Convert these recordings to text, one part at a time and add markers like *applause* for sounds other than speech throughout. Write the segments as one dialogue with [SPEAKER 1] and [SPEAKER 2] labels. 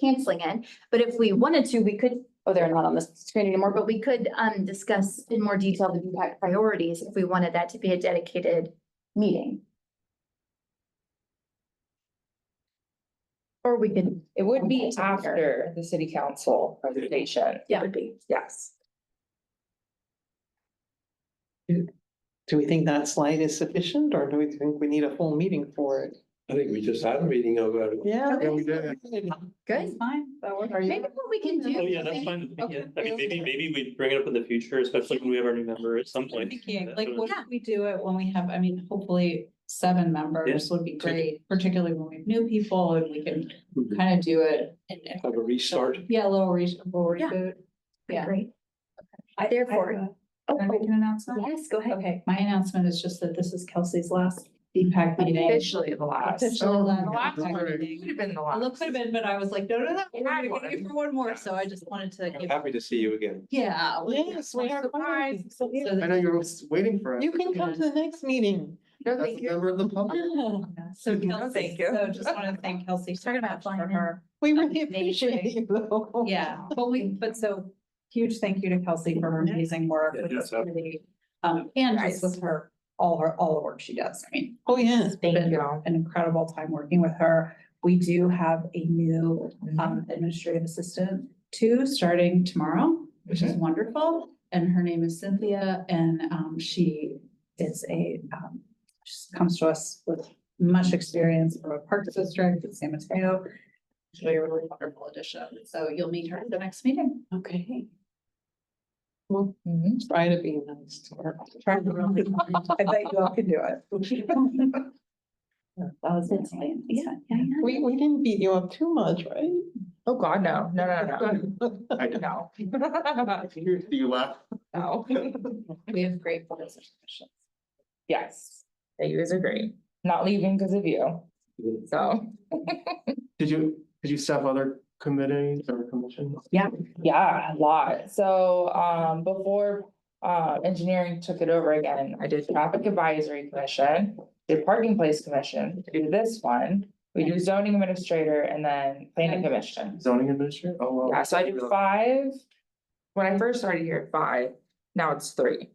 [SPEAKER 1] canceling it. But if we wanted to, we could, oh, they're not on the screen anymore, but we could um discuss in more detail the impact priorities if we wanted that to be a dedicated meeting. Or we could,
[SPEAKER 2] It would be
[SPEAKER 1] Okay.
[SPEAKER 2] after the city council presentation,
[SPEAKER 1] yeah, would be.
[SPEAKER 2] yes.
[SPEAKER 3] Do we think that slide is sufficient or do we think we need a full meeting for it?
[SPEAKER 4] I think we just had a meeting about it.
[SPEAKER 3] Yeah.
[SPEAKER 4] Yeah, we did.
[SPEAKER 1] Good.
[SPEAKER 2] Fine.
[SPEAKER 3] Are
[SPEAKER 1] Maybe
[SPEAKER 3] you,
[SPEAKER 1] what we can do.
[SPEAKER 5] Oh, yeah,
[SPEAKER 1] is-
[SPEAKER 5] that's fine. with me, yeah. I mean,
[SPEAKER 2] Okay.
[SPEAKER 5] maybe, maybe we bring it up in the future, especially when we have our new member at some point.
[SPEAKER 6] Thinking,
[SPEAKER 5] That's
[SPEAKER 6] like,
[SPEAKER 5] what
[SPEAKER 6] what
[SPEAKER 1] Yeah.
[SPEAKER 6] if we do it when we have, I mean, hopefully seven members would be
[SPEAKER 5] Take it.
[SPEAKER 6] great, particularly when we have new people and we can
[SPEAKER 5] Mhm.
[SPEAKER 6] kind of do it. in- in-
[SPEAKER 4] Have a restart.
[SPEAKER 6] Yeah, a little reasonable
[SPEAKER 1] Yeah.
[SPEAKER 6] reboot. Yeah.
[SPEAKER 1] Great.
[SPEAKER 6] I-
[SPEAKER 1] Therefore-
[SPEAKER 6] I have a-
[SPEAKER 1] Oh,
[SPEAKER 6] Can I make
[SPEAKER 1] oh,
[SPEAKER 6] an announcement?
[SPEAKER 1] yes, go ahead.
[SPEAKER 6] Okay, my announcement is just that this is Kelsey's last DPAC meeting.
[SPEAKER 2] Officially the last.
[SPEAKER 6] Officially
[SPEAKER 2] The
[SPEAKER 6] last
[SPEAKER 2] last
[SPEAKER 6] DPAC
[SPEAKER 2] one.
[SPEAKER 6] meeting.
[SPEAKER 2] Would have been the
[SPEAKER 6] It
[SPEAKER 2] last.
[SPEAKER 6] looks could have been, but I was like, no, no, no,
[SPEAKER 2] One
[SPEAKER 6] we're gonna give you
[SPEAKER 2] more.
[SPEAKER 6] for one more, so I just wanted to
[SPEAKER 4] I'm
[SPEAKER 6] give.
[SPEAKER 4] happy to see you again.
[SPEAKER 6] Yeah.
[SPEAKER 3] Yes, we are
[SPEAKER 6] Surprise.
[SPEAKER 3] going. So, yeah.
[SPEAKER 6] So
[SPEAKER 7] I
[SPEAKER 6] that-
[SPEAKER 7] know you're waiting for us.
[SPEAKER 3] you can come to the next meeting.
[SPEAKER 7] As a member of the public.
[SPEAKER 6] Yeah, So
[SPEAKER 1] Mm-hmm.
[SPEAKER 3] No,
[SPEAKER 6] Kelsey,
[SPEAKER 2] thank you.
[SPEAKER 6] so just want to thank Kelsey so
[SPEAKER 1] Talking about
[SPEAKER 6] much
[SPEAKER 1] flying
[SPEAKER 6] for
[SPEAKER 1] in. Oh.
[SPEAKER 6] her.
[SPEAKER 3] We really
[SPEAKER 6] Amazing.
[SPEAKER 3] appreciate you though.
[SPEAKER 6] Yeah, but we, but so huge thank you to Kelsey for her amazing work
[SPEAKER 5] Yeah,
[SPEAKER 6] with
[SPEAKER 5] yeah,
[SPEAKER 6] this committee. Um, and just with her, all her, all the work she does. I mean,
[SPEAKER 3] Oh, yeah.
[SPEAKER 2] Thank
[SPEAKER 6] been
[SPEAKER 2] you.
[SPEAKER 6] an incredible time working with her. We do have a new um administrative assistant too, starting tomorrow, which is wonderful. And her name is Cynthia and um she is a um, she comes to us with much experience from a park district in San Mateo. She'll be a really wonderful addition. So you'll meet her at the next meeting.
[SPEAKER 3] Okay. Well,
[SPEAKER 6] Mm-hmm.
[SPEAKER 2] Mm-hmm.
[SPEAKER 3] try to be nice to her.
[SPEAKER 6] I bet you all can do it. *laughs* That was it. Yeah, yeah, yeah.
[SPEAKER 3] We, we didn't beat you up too much, right?
[SPEAKER 2] Oh, God, no, no,
[SPEAKER 6] *laughs*
[SPEAKER 2] no,
[SPEAKER 7] I don't
[SPEAKER 2] no,
[SPEAKER 7] know. Do you laugh?
[SPEAKER 2] no, no.
[SPEAKER 6] We have great boards and commissions.
[SPEAKER 2] *laughs* Yes, you guys are great. Not leaving because of you. So,
[SPEAKER 7] Did you, did you staff other committees or commissions?
[SPEAKER 2] yeah, a lot. So, um, before, uh, engineering took it over again, I did traffic advisory commission. Did parking place commission, did this one, we do zoning administrator and then planning commission.
[SPEAKER 7] Zoning administrator? Oh, well.
[SPEAKER 2] Yeah, so I did five. When I first started here, five, now it's three.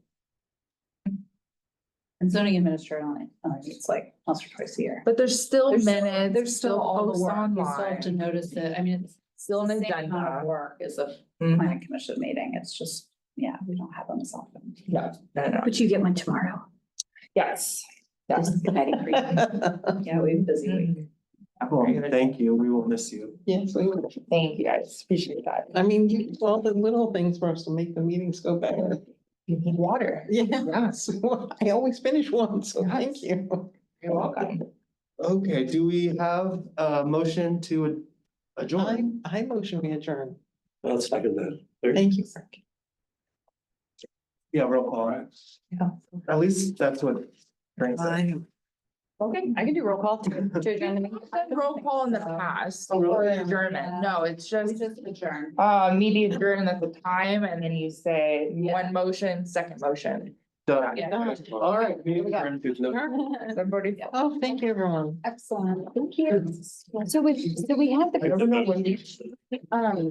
[SPEAKER 6] And zoning administrator only, only meets like once or twice a year.
[SPEAKER 2] But there's still
[SPEAKER 6] There's-
[SPEAKER 2] minutes, there's still
[SPEAKER 6] all the
[SPEAKER 2] posts
[SPEAKER 6] work. You still have to
[SPEAKER 2] online.
[SPEAKER 6] notice it. I mean, it's.
[SPEAKER 2] Still an
[SPEAKER 6] the same amount of
[SPEAKER 2] agenda.
[SPEAKER 6] Work is a
[SPEAKER 2] Mhm.
[SPEAKER 6] planning commission meeting. It's just, yeah, we don't have them as often.
[SPEAKER 2] No, no, no,
[SPEAKER 1] But you get one tomorrow.
[SPEAKER 2] yes,
[SPEAKER 6] This
[SPEAKER 2] yes.
[SPEAKER 6] is Patty Creek. *laughs* Yeah, we have a busy week.
[SPEAKER 2] Mm-hmm.
[SPEAKER 7] Cool. Thank you. We will miss you.
[SPEAKER 3] *laughs* Yes, we, would.
[SPEAKER 2] Thank you guys, appreciate that.
[SPEAKER 3] I mean, you, all the little things for us to make the meetings go better.
[SPEAKER 2] You need water.
[SPEAKER 3] Yes, *laughs* I always finish one, so
[SPEAKER 2] Yes.
[SPEAKER 3] thank you.
[SPEAKER 2] You're welcome.
[SPEAKER 7] Okay, do we have a motion to
[SPEAKER 3] I,
[SPEAKER 7] adjourn?
[SPEAKER 3] I motion we adjourn.
[SPEAKER 5] I'll second that.
[SPEAKER 3] Thank you. Frank.
[SPEAKER 7] Yeah, roll call.
[SPEAKER 6] *laughs* Yeah.
[SPEAKER 7] At least that's what. Frank said.
[SPEAKER 3] Bye.
[SPEAKER 6] Okay, I can do roll call *laughs* to, to adjourn the
[SPEAKER 2] We've
[SPEAKER 6] meeting.
[SPEAKER 2] done Roll call in the past
[SPEAKER 7] Oh, really?
[SPEAKER 2] for adjournment. No, it's
[SPEAKER 6] We
[SPEAKER 2] just,
[SPEAKER 6] just *laughs* adjourn.
[SPEAKER 2] uh, media adjournment at the time and then you say
[SPEAKER 6] Yeah.
[SPEAKER 2] one motion, second motion.
[SPEAKER 7] Done.
[SPEAKER 6] Yeah.
[SPEAKER 7] All right. meeting adjourned. There's no-
[SPEAKER 2] Everybody.
[SPEAKER 3] Oh, thank you, everyone.
[SPEAKER 6] Excellent. Thank
[SPEAKER 1] So we, so we have the.
[SPEAKER 7] I don't know when-
[SPEAKER 1] Um,